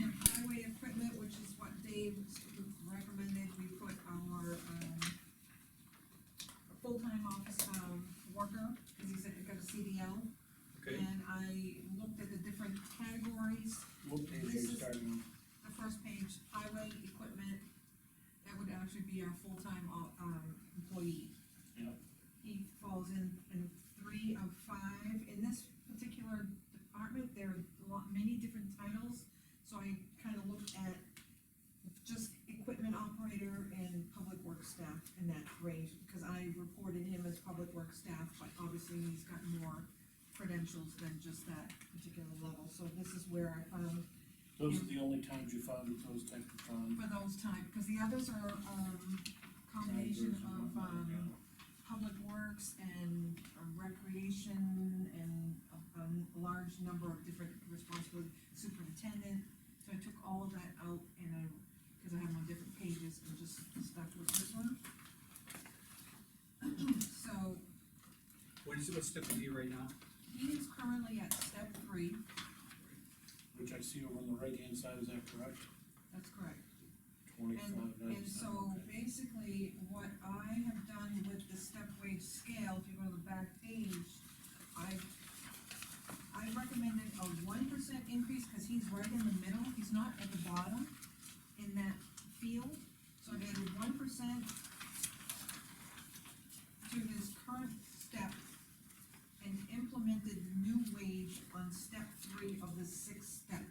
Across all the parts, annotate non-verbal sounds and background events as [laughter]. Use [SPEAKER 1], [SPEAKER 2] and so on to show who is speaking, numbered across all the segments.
[SPEAKER 1] um, um, full-time, uh, um, employee.
[SPEAKER 2] Yep.
[SPEAKER 1] He falls in, in three of five, in this particular department, there are a lot, many different titles, so I kinda looked at just equipment operator and public works staff in that range, because I reported him as public works staff, but obviously he's got more credentials than just that particular level, so this is where I found
[SPEAKER 2] Those are the only times you found that those type of times.
[SPEAKER 1] for those type, because the others are, um, combination of, um, public works and um, recreation and a, a large number of different responsibilities, superintendent. So I took all of that out and I, because I have them on different pages and just stuck with this one. [clears throat] So
[SPEAKER 3] What is, what step are you right now?
[SPEAKER 1] he is currently at step three,
[SPEAKER 2] Which I see over on the right-hand side, is that correct?
[SPEAKER 1] that's correct.
[SPEAKER 2] Twenty-five
[SPEAKER 1] And so
[SPEAKER 2] ninety-seven, okay.
[SPEAKER 1] basically, what I have done with the step wage scale, if you go to the back page, I, I recommended a one percent increase, cause he's right in the middle, he's not at the bottom in that field, so I added one percent to his current step and implemented new wage on step three of the sixth step.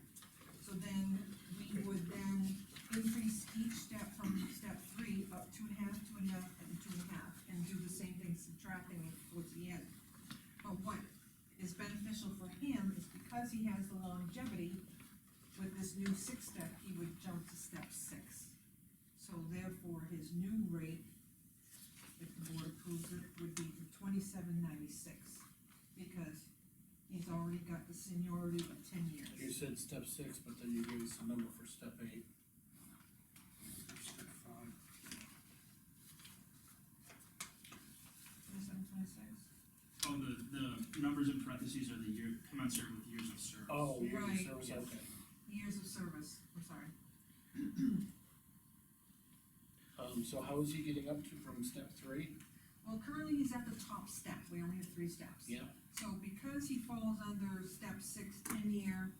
[SPEAKER 1] So then, we would then increase each step from step three up two and a half, two and a half, and two and a half, and do the same thing subtracting it towards the end. But what is beneficial for him is because he has the longevity, with this new six step, he would jump to step six. So therefore, his new rate, if the board approves it, would be twenty-seven ninety-six, because he's already got the seniority of ten years.
[SPEAKER 2] You said step six, but then you gave us a number for step eight. Step five.
[SPEAKER 1] Twenty-seven, twenty-six?
[SPEAKER 4] Oh, the, the numbers in parentheses are the year, commensurate with years of service.
[SPEAKER 2] Oh, years of
[SPEAKER 1] Right.
[SPEAKER 2] service, okay.
[SPEAKER 1] Years of service, I'm sorry.
[SPEAKER 2] Um, so how is he getting up to from step three?
[SPEAKER 1] Well, currently he's at the top step, we only have three steps.
[SPEAKER 2] Yeah.
[SPEAKER 1] So because he falls under step six, ten-year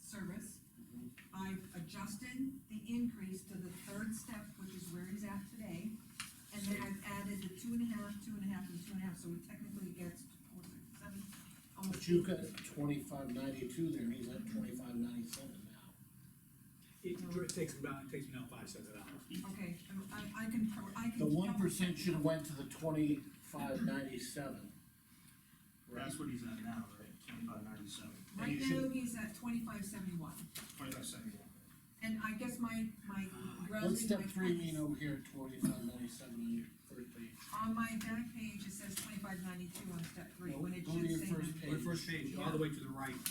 [SPEAKER 1] service,
[SPEAKER 2] Mhm.
[SPEAKER 1] I've adjusted the increase to the third step, which is where he's at today. And then I've added the two and a half, two and a half, and two and a half, so he technically gets to four, six, seven,
[SPEAKER 2] But
[SPEAKER 1] almost.
[SPEAKER 2] you've got twenty-five ninety-two there, and he's at twenty-five ninety-seven now.
[SPEAKER 3] It it takes about, it takes me now five cents an hour.
[SPEAKER 1] Okay, I'm- I, I can, pro- I can.
[SPEAKER 2] The one percent should have went to the twenty-five ninety-seven. Right,
[SPEAKER 4] That's what he's at now, right, twenty-five ninety-seven.
[SPEAKER 1] Right now, he's at twenty-five seventy-one,
[SPEAKER 4] Twenty-five seventy-one.
[SPEAKER 1] and I guess my, my.
[SPEAKER 2] what's
[SPEAKER 1] rounding
[SPEAKER 2] step
[SPEAKER 1] my
[SPEAKER 2] three
[SPEAKER 1] points-
[SPEAKER 2] mean over here, twenty-five ninety-seven on your first page?
[SPEAKER 1] On my back page, it says twenty-five ninety-two on step three,
[SPEAKER 2] No,
[SPEAKER 1] when it
[SPEAKER 2] go to your
[SPEAKER 1] should say.
[SPEAKER 2] first
[SPEAKER 1] that-
[SPEAKER 2] page.
[SPEAKER 3] On the first page, all the way to the right,
[SPEAKER 1] Yeah,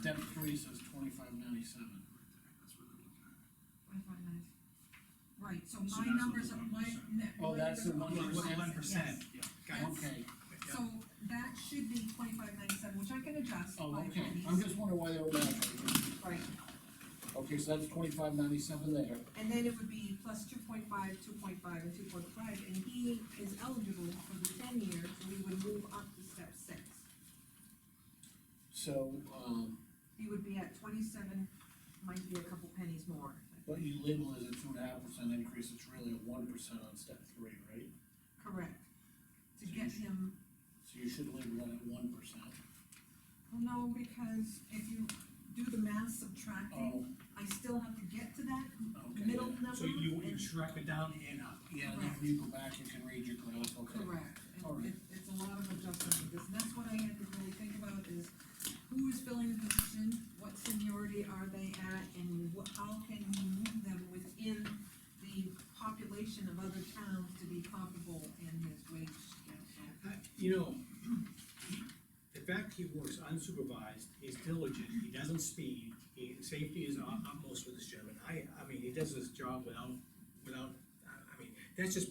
[SPEAKER 2] Step three says twenty-five ninety-seven.
[SPEAKER 1] twenty-five ninety. Right, so
[SPEAKER 4] So
[SPEAKER 1] my
[SPEAKER 4] that's
[SPEAKER 1] numbers
[SPEAKER 4] the
[SPEAKER 1] are, my
[SPEAKER 4] 1%.
[SPEAKER 1] net.
[SPEAKER 2] Oh,
[SPEAKER 1] my
[SPEAKER 2] that's
[SPEAKER 1] numbers
[SPEAKER 2] the
[SPEAKER 1] are
[SPEAKER 2] 1%.
[SPEAKER 3] 1%.
[SPEAKER 1] yes.
[SPEAKER 4] Yeah.
[SPEAKER 3] Got it.
[SPEAKER 2] Okay,
[SPEAKER 3] Yeah.
[SPEAKER 1] So that should be twenty-five ninety-seven, which I can adjust.
[SPEAKER 2] oh,
[SPEAKER 1] by
[SPEAKER 2] okay,
[SPEAKER 1] pennies.
[SPEAKER 2] I'm just wondering why they were that.
[SPEAKER 1] Right,
[SPEAKER 2] Okay, so that's twenty-five ninety-seven there.
[SPEAKER 1] and then it would be plus two point five, two point five, and two point five, and he is eligible for the ten years, so we would move up to step six.
[SPEAKER 2] So, um,
[SPEAKER 1] He would be at twenty-seven, might be a couple pennies more.
[SPEAKER 2] what you label as a two and a half percent increase, it's really a one percent on step three, right?
[SPEAKER 1] Correct. To get him
[SPEAKER 2] So you should label that at one percent.
[SPEAKER 1] Well, no, because if you do the math subtracting,
[SPEAKER 2] Oh,
[SPEAKER 1] I still have to get to that
[SPEAKER 2] okay.
[SPEAKER 1] middle
[SPEAKER 2] yeah.
[SPEAKER 1] number.
[SPEAKER 3] So you, you
[SPEAKER 1] and-
[SPEAKER 3] track it down and up.
[SPEAKER 2] Yeah, and then when you go back, you can read your graph, okay.
[SPEAKER 1] Correct,
[SPEAKER 2] All
[SPEAKER 1] and
[SPEAKER 2] right.
[SPEAKER 1] it, it's a lot of adjustment, because that's what I had to really think about is who is filling the position, what seniority are they at, and what, how can we move them within the population of other towns to be comparable in his wage scale, so.
[SPEAKER 3] Uh, You know, the fact he works unsupervised, he's diligent, he doesn't speed, he, safety is ut- utmost with this gentleman. I, I mean, he does his job without, without, I I mean, that's just